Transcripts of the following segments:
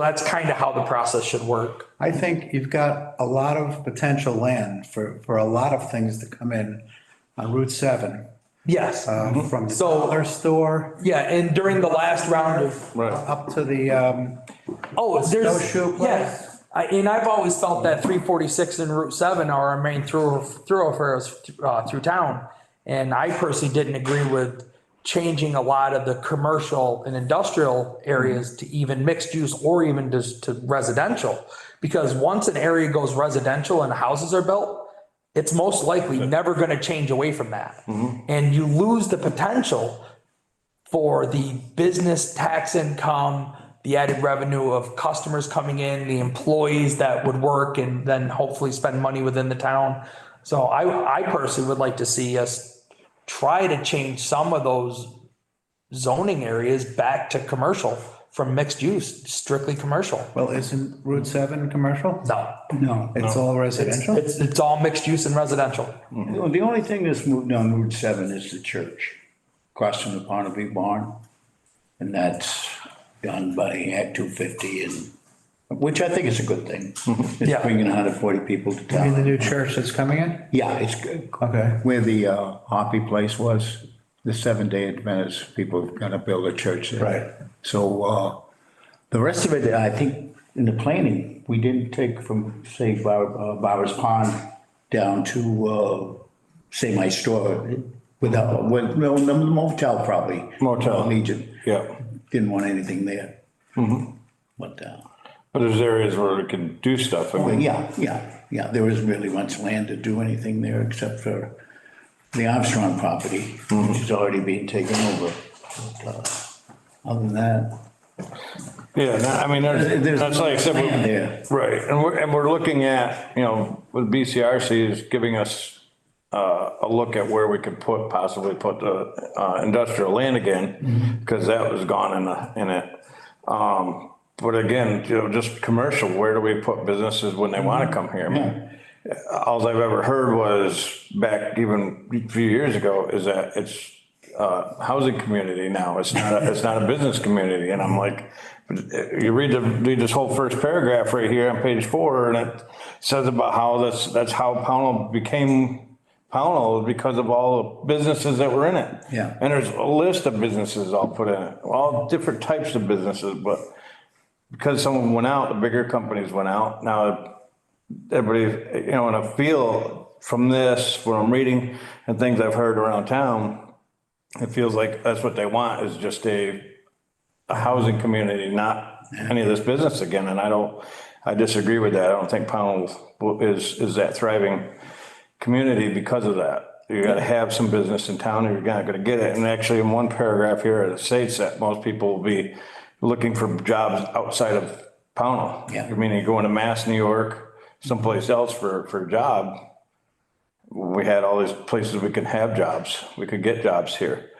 That's kind of how the process should work. I think you've got a lot of potential land for, for a lot of things to come in on Route 7. Yes. um, From the So- dollar store Yeah, and during the last round of, Right. up to the, um, oh, there's, snowshoe place? yeah. I, and I've always felt that three forty-six and Route seven are our main through, thoroughfares, uh, through town. And I personally didn't agree with changing a lot of the commercial and industrial areas to even mixed use or even just to residential. Because once an area goes residential and houses are built, it's most likely never gonna change away from that. And you lose the potential for the business tax income, the added revenue of customers coming in, the employees that would work and then hopefully spend money within the town. So I, I personally would like to see us try to change some of those zoning areas back to commercial from mixed use, strictly commercial. well, isn't Route 7 commercial? No, No. It's all residential? it's, it's all mixed use and residential. Well, The only thing that's moved down Route seven is the church, crossing the Barnaby Barn. And that's done by Act two fifty and, which I think is a good thing. Yeah. It's bringing hundred forty people to You mean the town. new church that's coming in? Yeah, it's good. Okay. Where the uh, Hoppy Place was, the Seven Day Adventist people are gonna build a church there. Right. So, uh, The rest of it, I think, in the planning, we didn't take from, say, Bar- uh, Bowers Pond down to, uh, say, my store without, with, no, the motel probably. Motel. Legion. Yeah, Didn't want anything there. But, uh, but there's areas where it can do stuff. I but mean, yeah, yeah, yeah, there isn't really much land to do anything there except for the Armstrong property, Mm-hmm. which is already being taken over. But, uh, Other than that, yeah, that- I mean, there's, There's that's like, except, land there. we- right, and we're, and we're looking at, you know, with BCRC is giving us uh, a look at where we could put, possibly put the uh, industrial land Mm-hmm. again, because that was gone in the, in it. Um, But again, you know, just commercial, where do we put businesses when they Mm-hmm. want to come here? I mean, All I've ever heard was back even a few years ago is that it's uh, housing community now. It's not, a- it's not a business community. And I'm like, you read the, read this whole first paragraph right here on page four and it says about how that's, that's how Pownell became Pownell because of all the businesses that were in it. Yeah. And there's a list of businesses all put in it, all different types of businesses, but because someone went out, the bigger companies went out. Now everybody, you know, and I feel from this, what I'm reading and things I've heard around town, it feels like that's what they want is just a, a housing community, not any of this business again. And I don't, I disagree with that. I don't think Pownell is, is that thriving community because of that. You gotta have some business in town or you're not gonna get it. And actually in one paragraph here, it states that most people will be looking for jobs outside of Pownell. Yeah. I mean, you're going to Mass, New York, someplace else for, for a job. We had all these places we could have jobs. We could get jobs here.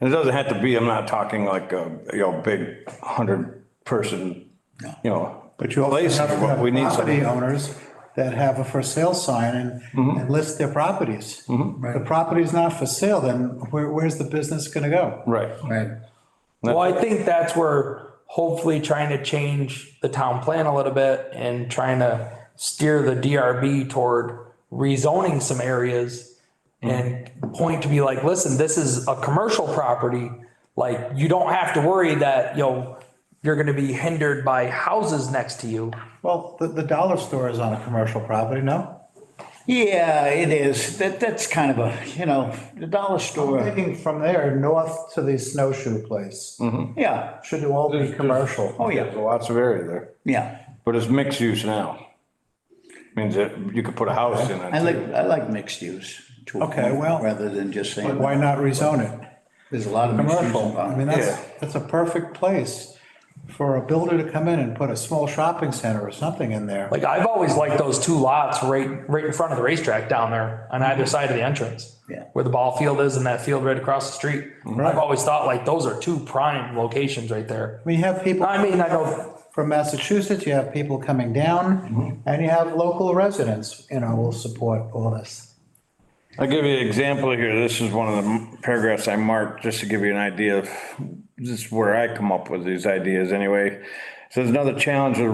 And it doesn't have to be, I'm not talking like a, you know, big hundred person, you know. But you also place have here, but we need property some. owners that have a for sale sign and, and list their properties. If The property's not for sale, then where, where's the business gonna go? Right. Right. Well, I think that's where hopefully trying to change the town plan a little bit and trying to steer the DRB toward rezoning some areas and point to be like, listen, this is a commercial property. Like, you don't have to worry that, you know, you're gonna be hindered by houses next to you. Well, the, the dollar store is on a commercial property, no? Yeah, it is. That, that's kind of a, you know, the dollar store, Thinking from there, north to the snowshoe place, Mm. yeah, should it all be commercial? oh, yeah, There's lots of area there, yeah. but it's mixed use now. Means that you could put a house in I it. like, I like mixed use. to a Okay, point, well, Rather than just saying, Why not rezone it? there's a lot of mixed use. Commercial, I mean, around. that's, that's a perfect place for a builder to come in and put a small shopping center or something in there. Like, I've always liked those two lots right, right in front of the racetrack down there on either side of the entrance. Yeah. Where the ball field is and that field right across the street. I've always thought like those are two prime locations right there. I mean, you have people I mean, I know, from Massachusetts, you have people coming down, Mm-hmm. and you have local residents, you know, will support all this. I'll give you an example here. This is one of the paragraphs I marked, just to give you an idea of, this is where I come up with these ideas anyway. So there's another challenge with